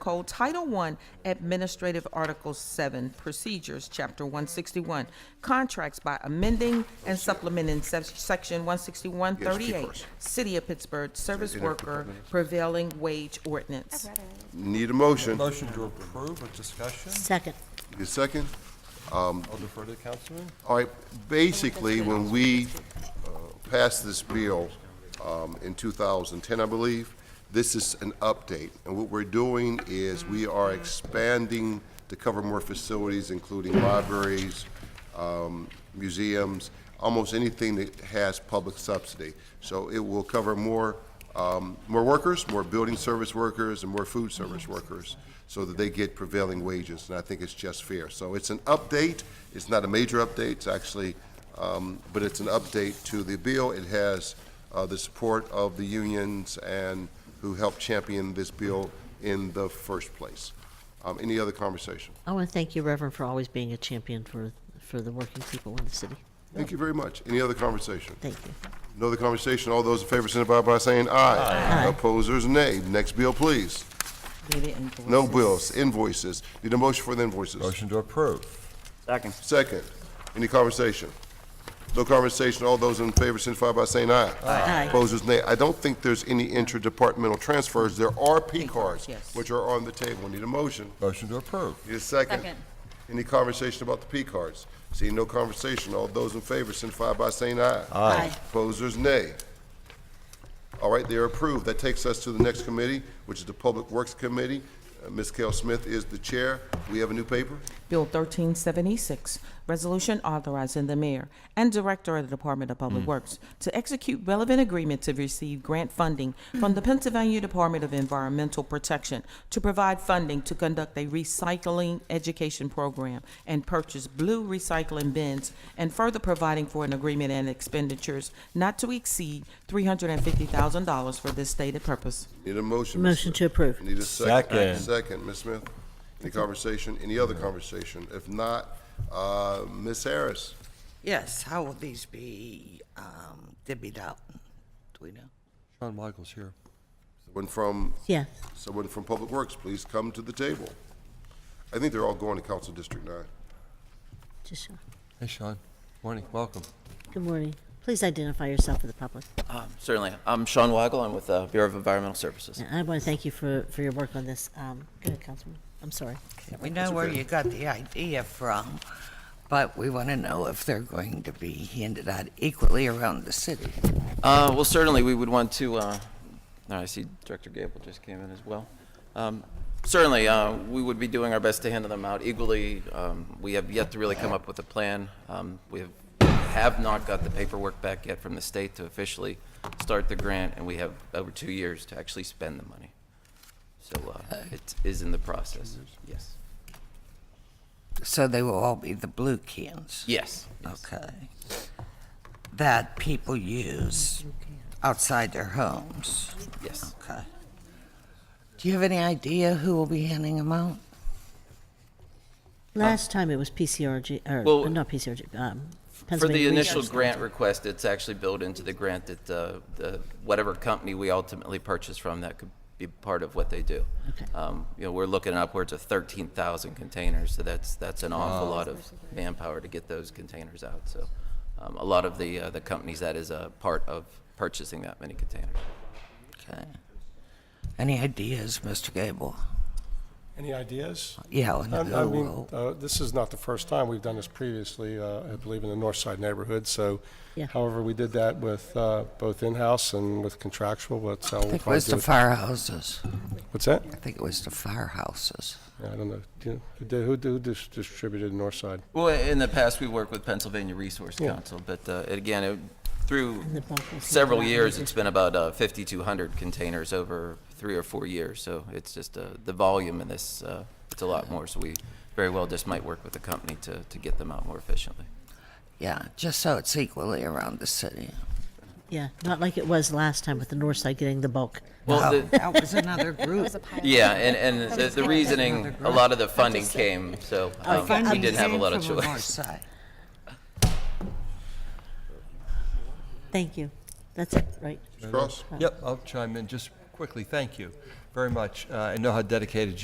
Code Title I Administrative Article 7 Procedures, Chapter 161, Contracts by amending and supplementing Sec- Section Yes, keep 16138, first. City of Pittsburgh Service Isn't it Worker Prevailing Wage Ordinance. Need a motion. Motion to approve with discussion. Second. Need a second? I'll defer to the councilman. All right, basically, when we uh, passed this bill um, in 2010, I believe, this is an update. And what we're doing is we are expanding to cover more facilities, including libraries, um, museums, almost anything that has public subsidy. So it will cover more, um, more workers, more building service workers, and more food service workers, so that they get prevailing wages, and I think it's just fair. So it's an update, it's not a major update, it's actually, um, but it's an update to the bill. It has uh, the support of the unions and who helped champion this bill in the first place. Um, Any other conversation? I want to thank you, Reverend, for always being a champion for, for the working people in the city. Thank you very much. Any other conversation? Thank you. No other conversation. All those in favor signify by saying aye. Aye. Opposers, nay. Next bill, please. No bills, invoices. Need a motion for the invoices. Motion to approve. Second. Second, any conversation? No conversation. All those in favor signify by saying aye. Aye. Opposers, nay. I don't think there's any interdepartmental transfers. There are P cards, yes. which are on the table. Need a motion. Motion to approve. Need a second. Second. Any conversation about the P cards? Seeing no conversation, all those in favor signify by saying aye. Aye. Opposers, nay. All right, they are approved. That takes us to the next committee, which is the Public Works Committee. Uh, Ms. Kell Smith is the chair. We have a new paper. Bill 1376, resolution authorizing the mayor and director of the Department of Public Works to execute relevant agreement to receive grant funding from the Pennsylvania Department of Environmental Protection to provide funding to conduct a recycling education program and purchase blue recycling bins and further providing for an agreement and expenditures not to exceed $350,000 for this stated purpose. Need a motion? Ms. Motion Smith? to approve. Need a second. Second. Second, Ms. Smith. Any conversation? Any other conversation? If not, uh, Ms. Harris. Yes, how will these be um, divvied out? Do we know? Sean Michael's here. One from Yes. Someone from Public Works, please come to the table. I think they're all going to Council District Nine. Just show. Hey, Sean. Morning, welcome. Good morning. Please identify yourself for the public. Um, Certainly. I'm Sean Wagle. I'm with the Bureau of Environmental Services. And I want to thank you for, for your work on this. Um, Go ahead, Councilman. I'm sorry. We know where you got the idea from, but we want to know if they're going to be handed out equally around the city. Uh, Well, certainly, we would want to, uh, no, I see Director Gable just came in as well. Um, Certainly, uh, we would be doing our best to handle them out equally. Um, We have yet to really come up with a plan. Um, We have have not got the paperwork back yet from the state to officially start the grant, and we have over two years to actually spend the money. So uh, it is in the process, yes. So they will all be the blue cans? Yes. Okay. That people use outside their homes? Yes. Okay. Do you have any idea who will be handing them out? Last time it was PCRG, or, Well- not PCRG, um, For the Pennsylvania. initial Resource- grant request, it's actually built into the grant that uh, the, whatever company we ultimately purchase from, that could be part of what they do. Okay. Um, You know, we're looking upwards of 13,000 containers, so that's, that's an awful lot of manpower to get those containers out. So um, a lot of the, uh, the companies, that is a part of purchasing that many containers. Okay. Any ideas, Mr. Gable? Any ideas? Yeah, on I I who mean, will? uh, this is not the first time. We've done this previously, uh, I believe, in the north side neighborhood. So Yeah. however, we did that with uh, both in-house and with contractual. That's how I we'll think it probably was do the it. firehouses. What's that? I think it was the firehouses. Yeah, I don't know. Do you- Who did- who did- who dis- distributed north side? Well, in the past, we worked with Pennsylvania Resource Yeah. Council, but uh, again, it- through the bulk was- several years, it's been about uh, 5,200 containers over three or four years, so it's just, uh, the volume in this, uh, it's a lot more, so we very well just might work with the company to, to get them out more efficiently. Yeah, just so it's equally around the city. Yeah, not like it was last time with the north side getting the bulk. Well, Oh, the- That was another group. yeah, and, and the- the reasoning, a lot of the funding came, so um, we Funding didn't have a came lot of from the north choice. side. Thank you. That's it, right? Ms. Cross? Yep, I'll chime in just quickly. Thank you very much. Uh, I know how dedicated